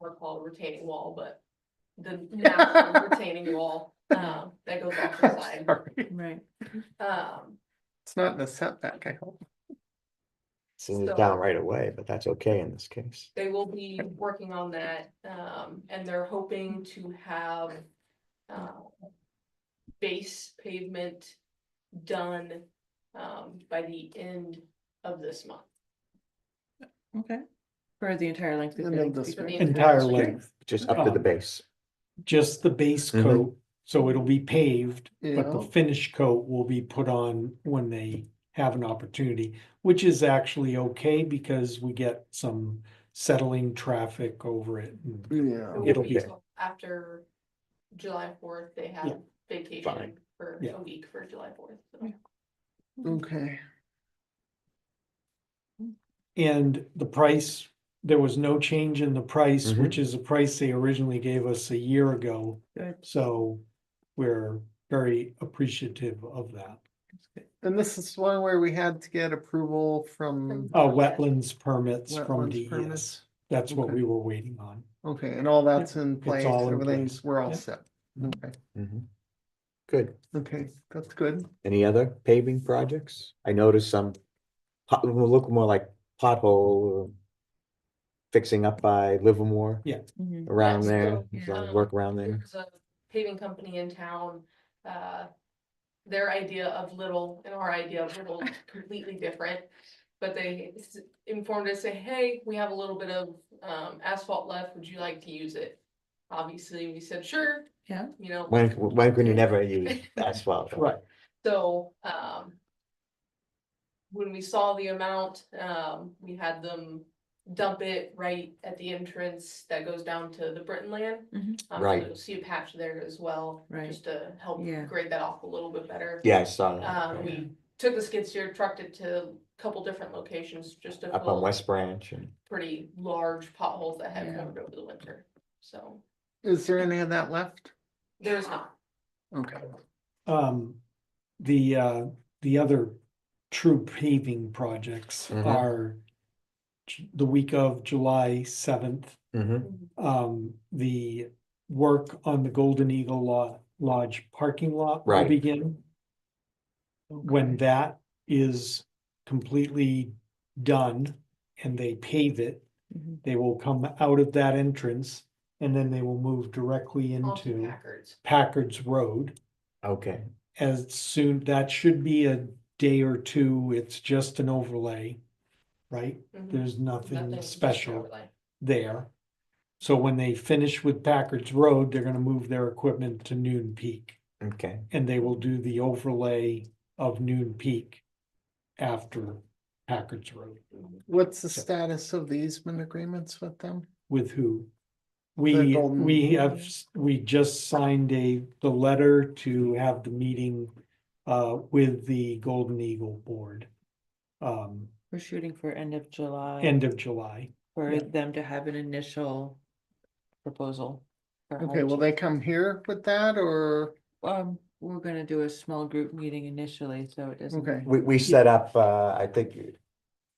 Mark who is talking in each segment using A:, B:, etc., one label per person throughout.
A: we're called retaining wall, but the natural retaining wall, um, that goes off the side.
B: Sorry,
C: Right.
A: Um,
B: It's not in the setback, I hope.
D: Send
A: So-
D: it down right away, but that's okay in this case.
A: they will be working on that, um, and they're hoping to have, um, base pavement done, um, by the end of this month.
C: Okay. For the entire length.
B: End
C: of
B: of
C: Billings
B: this
C: Beach,
A: week.
C: right?
E: Entire
D: Sure.
E: length,
D: Just up to the
E: Um,
D: base.
E: just the base
D: Mhm.
E: coat, so it'll be paved, but the
B: Yeah.
E: finish coat will be put on when they have an opportunity, which is actually okay because we get some settling traffic over it. and-
B: Yeah.
A: It will
E: It'll
A: be
E: be-
A: till After July fourth, they have
E: Yeah.
A: vacation
D: Fine.
A: for
E: Yeah.
A: a week for July fourth.
B: Okay,
E: And the price, there was no change in the price,
D: Mhm.
E: which is the price they originally gave us a year ago.
C: Good.
E: So we're very appreciative of that.
B: and this is one where we had to get approval from
E: Uh, wetlands permits from
B: wetlands
E: E DES.
B: permits.
E: That's what
B: Okay.
E: we were waiting on.
B: Okay, and all that's in place,
E: all in
B: everything's,
E: place.
B: we're all
E: Yep.
B: set. Okay,
D: Mhm. Good.
B: okay, that's good.
D: Any other paving projects? I noticed some pot- will look more like pothole uh, fixing up by Livermore
C: Mhm.
D: around
A: That's
D: there,
A: true.
D: some
A: Yeah.
D: work around there.
A: There's a paving company in town, uh, their idea of little and our idea of little is completely different. But they s- informed us, say, hey, we have a little bit of, um, asphalt left, would you like to use it? Obviously, we said, sure.
C: Yeah.
A: You know.
D: When, when can you never use asphalt?
E: Right.
A: So, um. When we saw the amount, um, we had them dump it right at the entrance that goes down to the Britton land.
C: Mhm.
A: Um, so
D: Right.
A: You'll see a patch there as well.
C: Right.
A: Just to help
C: Yeah.
A: grade that off a little bit better.
D: Yeah, I saw
A: Um,
D: that.
A: we took the skid steer, trucked it to a couple different locations just to
D: Up on
A: fill
D: West Branch and
A: pretty large potholes that had
C: Yeah.
A: covered over the winter. So
B: Is there any of that left?
C: Ah.
A: there's not.
B: Okay,
E: Um, the, uh, the other true paving projects
D: Mhm.
E: are j- the week of July seventh,
D: Mhm.
A: mm-hmm,
E: um, the work on the Golden Eagle Lo- Lodge parking lot will
D: Right.
E: begin. When that is completely done and they pave it,
C: Mhm.
E: they will come out of that entrance and then they will move directly
A: Onto
E: into
A: Packards.
E: Packard's Road
D: okay,
E: as soon, that should be a day or two, it's just an overlay, right?
A: Mhm.
E: There's
A: Nothing,
E: nothing
A: just
E: special
A: overlay.
E: there. So when they finish with Packard's Road, they're gonna move their equipment to Noon Peak,
D: okay.
E: and they will do the overlay of Noon Peak after Packard's Road,
B: what's the status of the easement agreements with them?
E: with who?
B: The
E: We,
B: Golden-
E: we have, s- we just signed a, the letter to have the meeting uh, with the Golden Eagle Board. Um,
C: We're shooting for end of July.
E: end of July.
C: For
E: yeah.
C: them to have an initial proposal. for how
B: Okay,
C: to
B: will they come here with that or,
C: Um, we're gonna do a small group meeting initially, so it doesn't.
B: okay,
D: We, we set up, uh, I think,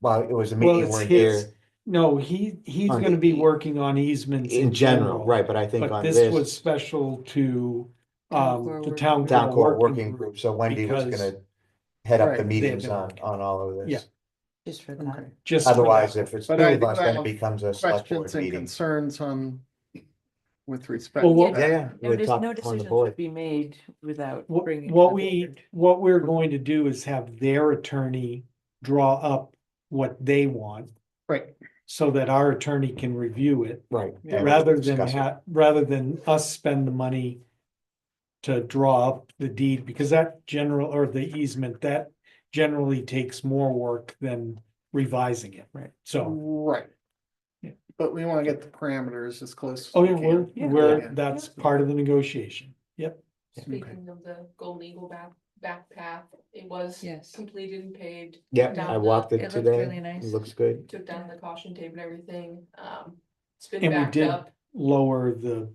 D: well, it was a
E: Well,
D: meeting
E: it's
D: where
E: his,
D: here
E: no, he, he's
D: On
E: gonna be
D: the-
E: working on easements
D: in general, right, but I think
E: But
D: on
E: this was
D: this
E: special to,
C: Town Core
E: um, the
C: Working
E: town.
C: Group.
D: town court working group, so Wendy was
E: because-
D: gonna head up
B: Right,
D: the
B: they've
D: meetings
E: been
D: on,
E: working.
D: on all of
E: Yeah.
D: this.
C: Just for
B: okay.
C: that.
E: Just for
D: Otherwise,
E: that.
D: if it's two
B: But I
D: of
B: do
D: us, then it
B: have
D: becomes a select board
B: questions and
D: meeting.
B: concerns on with respect?
E: Well,
B: to
E: what-
B: that?
D: Yeah, yeah.
C: No,
D: we
C: dis-
D: talked
C: no
D: on the
C: decisions
D: board.
C: would be made without
E: What,
C: bringing. it to
E: what
C: the
E: we,
C: board.
E: what we're going to do is have their attorney draw up what they want
B: Right,
E: so that our attorney can review it.
D: Right.
C: Yeah.
D: and we
E: Rather
D: can
E: than
D: discuss it.
E: ha- rather than us spend the money to draw up the deed, because that general, or the easement, that generally takes more work than revising it.
C: Right.
B: Mm.
E: So,
B: right.
E: Yeah.
B: But we want to get the parameters as close. as
E: oh
B: we
E: yeah,
B: can.
E: we're,
C: Yeah.
E: we're,
B: Yeah.
E: that's part of the negotiation. Yep.
A: Speaking of the Golden Eagle back, back path, it was
C: Yes.
A: completed and paved,
D: Yep,
A: down
D: I
A: the-
D: walked
C: it
D: it
C: looks really
D: today.
C: nice.
D: It Looks good.
A: took down the caution tape and everything, um, it's been
E: And we
A: backed
E: did
A: up.
E: Lower the,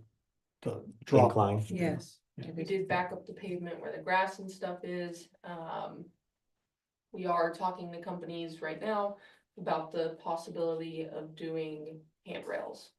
E: the drop
D: Incline.
E: off.
C: Yes.
E: Yeah.
C: I
A: We
C: think-
A: did back up the pavement where the grass and stuff is, um. We are talking to companies right now about the possibility of doing handrails